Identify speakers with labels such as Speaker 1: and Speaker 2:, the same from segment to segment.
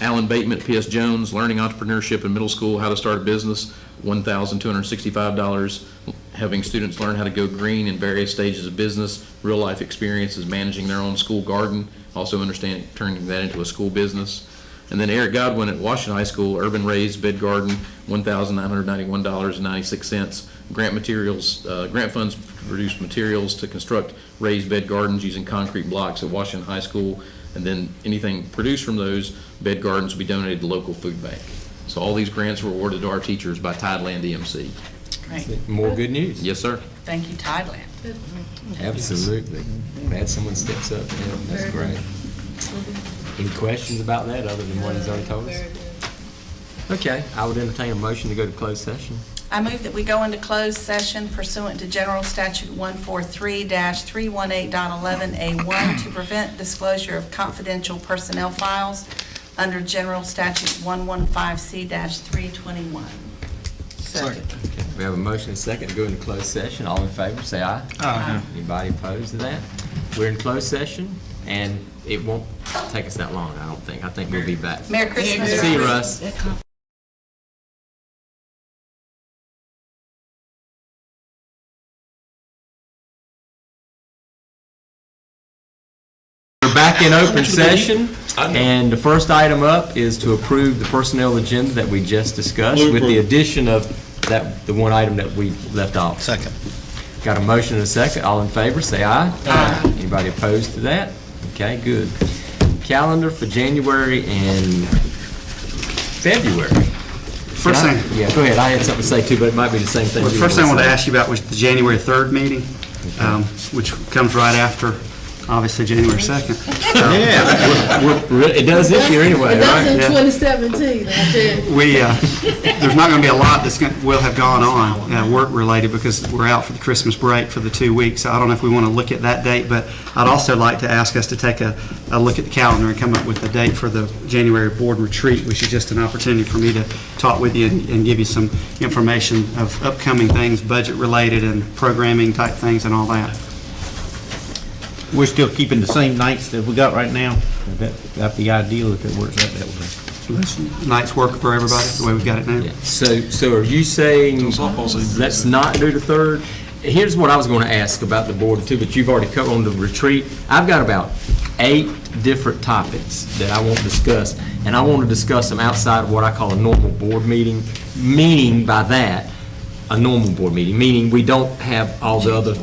Speaker 1: Alan Bateman, P.S. Jones, Learning Entrepreneurship in Middle School, How to Start a Business, $1,265. Having students learn how to go green in various stages of business, real-life experiences managing their own school garden, also understanding, turning that into a school business. And then Eric Godwin at Washington High School, Urban Raised Bed Garden, $1,991.96. Grant materials, uh, grant funds produce materials to construct raised bed gardens using concrete blocks at Washington High School. And then anything produced from those bed gardens will be donated to local food bank. So all these grants were awarded to our teachers by Tideland EMC.
Speaker 2: Great.
Speaker 3: More good news.
Speaker 1: Yes, sir.
Speaker 2: Thank you, Thailand.
Speaker 3: Absolutely. Glad someone steps up. Yeah, That's great. Any questions about that other than what he's already told us? Okay, I would entertain a motion to go to closed session.
Speaker 2: I move that we go into closed session pursuant to General Statute 143-318.11A1 to prevent disclosure of confidential personnel files under General Statute 115C-321. Second.
Speaker 3: Okay, We have a motion and a second to go into closed session. All in favor, say aye. Aye. Anybody opposed to that? We're in closed session, and it won't take us that long, I don't think. I think we'll be back.
Speaker 2: Merry Christmas.
Speaker 3: See you, Russ. We're back in open session, and the first item up is to approve the personnel agenda that we just discussed with the addition of that, the one item that we left off.
Speaker 4: Second.
Speaker 3: Got a motion and a second. All in favor, say aye. Aye. Anybody opposed to that? Okay, good. Calendar for January and February.
Speaker 5: First thing,
Speaker 3: Yeah, go ahead. I had something to say too, but it might be the same thing.
Speaker 5: the
Speaker 3: you
Speaker 5: first thing I
Speaker 3: wanna
Speaker 5: wanted to
Speaker 3: say.
Speaker 5: ask you about was the January 3rd meeting, um, which comes right after, obviously, January 2nd.
Speaker 3: Yeah, we're- we're- it does this year anyway,
Speaker 6: That's
Speaker 3: right?
Speaker 6: in
Speaker 5: yeah.
Speaker 6: 2017, I tell you.
Speaker 5: We, uh, there's not going to be a lot that's going, will have gone on, uh, work-related, because we're out for the Christmas break for the two weeks. So I don't know if we want to look at that date, but I'd also like to ask us to take a, a look at the calendar and come up with a date for the January board retreat, which is just an opportunity for me to talk with you and and give you some information of upcoming things, budget-related and programming type things and all that.
Speaker 4: We're still keeping the same nights that we got right now. That- That'd be ideal if it works out that way.
Speaker 5: Nights work for everybody, the way we've got it now?
Speaker 3: Yeah. So, so are you saying, let's not do the third? Here's what I was going to ask about the board too, but you've already covered on the retreat. I've got about eight different topics that I want to discuss, and I want to discuss them outside of what I call a normal board meeting. Meaning by that, a normal board meeting, meaning we don't have all the other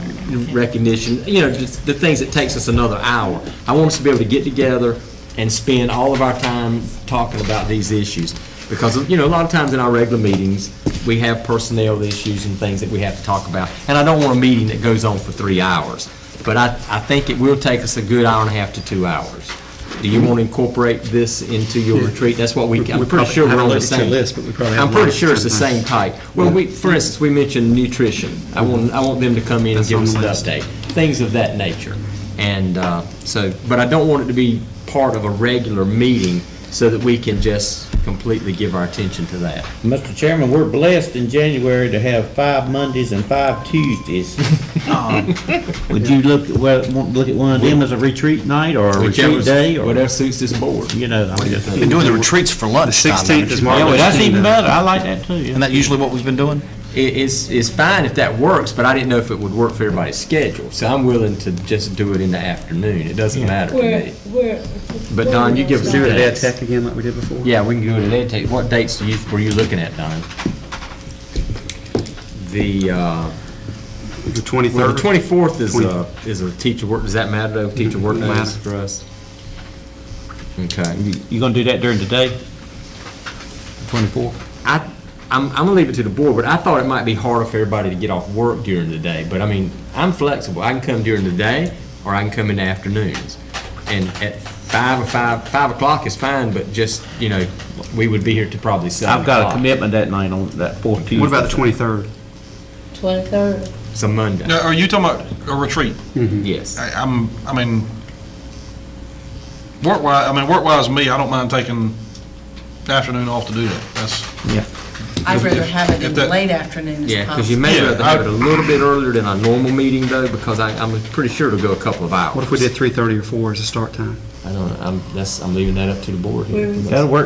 Speaker 3: recognition, you know, just the things that takes us another hour. I want us to be able to get together and spend all of our time talking about these issues. Because, you know, a lot of times in our regular meetings, we have personnel issues and things that we have to talk about. And I don't want a meeting that goes on for three hours. But I, I think it will take us a good hour and a half to two hours. Do you want to incorporate this into your retreat? That's what we, I'm pretty sure we're on the same. I'm pretty sure it's the same type. Well, we, for instance, we mentioned nutrition. I want, I want them to come in and give us an update, things of that nature. And uh, so, but I don't want it to be part of a regular meeting so that we can just completely give our attention to that.
Speaker 4: Mr. Chairman, we're blessed in January to have five Mondays and five Tuesdays. Would you look, at well, want to look at one of them as a retreat night or a retreat day? or
Speaker 3: Whatever suits this board.
Speaker 4: You know, I mean, just-
Speaker 7: Been doing the retreats for lunch.
Speaker 5: The 16th is Martin
Speaker 4: Yeah, well,
Speaker 5: Luther
Speaker 4: that's
Speaker 5: King
Speaker 4: even
Speaker 5: Day.
Speaker 4: better. I like that too.
Speaker 7: Isn't
Speaker 4: yeah.
Speaker 7: that usually what we've been doing?
Speaker 3: It, it's, it's fine if that works, but I didn't know if it would work for everybody's schedule. So I'm willing to just do it in the afternoon. It doesn't matter to
Speaker 6: Where,
Speaker 3: me.
Speaker 6: where?
Speaker 3: But Don, you give us
Speaker 5: Do
Speaker 3: your
Speaker 5: it at Ed
Speaker 3: dates.
Speaker 5: Tech again like we did before?
Speaker 3: Yeah, we can go to that. date. What dates do you, were you looking at, Don? The, uh,
Speaker 5: The
Speaker 3: well,
Speaker 5: 23rd?
Speaker 3: the twenty-fourth is
Speaker 5: Twenty-
Speaker 3: a, is a teacher work, does that matter though? Teacher work
Speaker 5: Doesn't
Speaker 3: days
Speaker 5: matter.
Speaker 3: for us? Okay.
Speaker 7: You gonna do that during the day? Twenty-four?
Speaker 3: I, I'm, I'm gonna leave it to the board, but I thought it might be harder for everybody to get off work during the day. But I mean, I'm flexible. I can come during the day or I can come in the afternoons. And at five or five, five o'clock is fine, but just, you know, we would be here to probably seven
Speaker 7: I've got
Speaker 3: o'clock.
Speaker 7: a commitment that night on that fourth Tuesday.
Speaker 5: What about the 23rd?
Speaker 6: 23rd.
Speaker 3: It's a Monday,
Speaker 8: Now, are you talking about a retreat?
Speaker 3: yes.
Speaker 8: I, I'm, I mean, work-wise, I mean, work-wise, me, I don't mind taking the afternoon off to do that. That's,
Speaker 2: I'd rather have it in
Speaker 8: If
Speaker 2: the
Speaker 8: that-
Speaker 2: late afternoon as
Speaker 3: Yeah, because you
Speaker 2: possible.
Speaker 3: may
Speaker 8: Yeah,
Speaker 3: rather have it a little bit earlier than our normal meeting though, because I, I'm pretty sure it'll go a couple of hours.
Speaker 5: What if we did 3:30 or 4 as a start time?
Speaker 3: I don't, know. I'm, that's, I'm leaving that up to the board here.
Speaker 6: Where we
Speaker 7: That'll work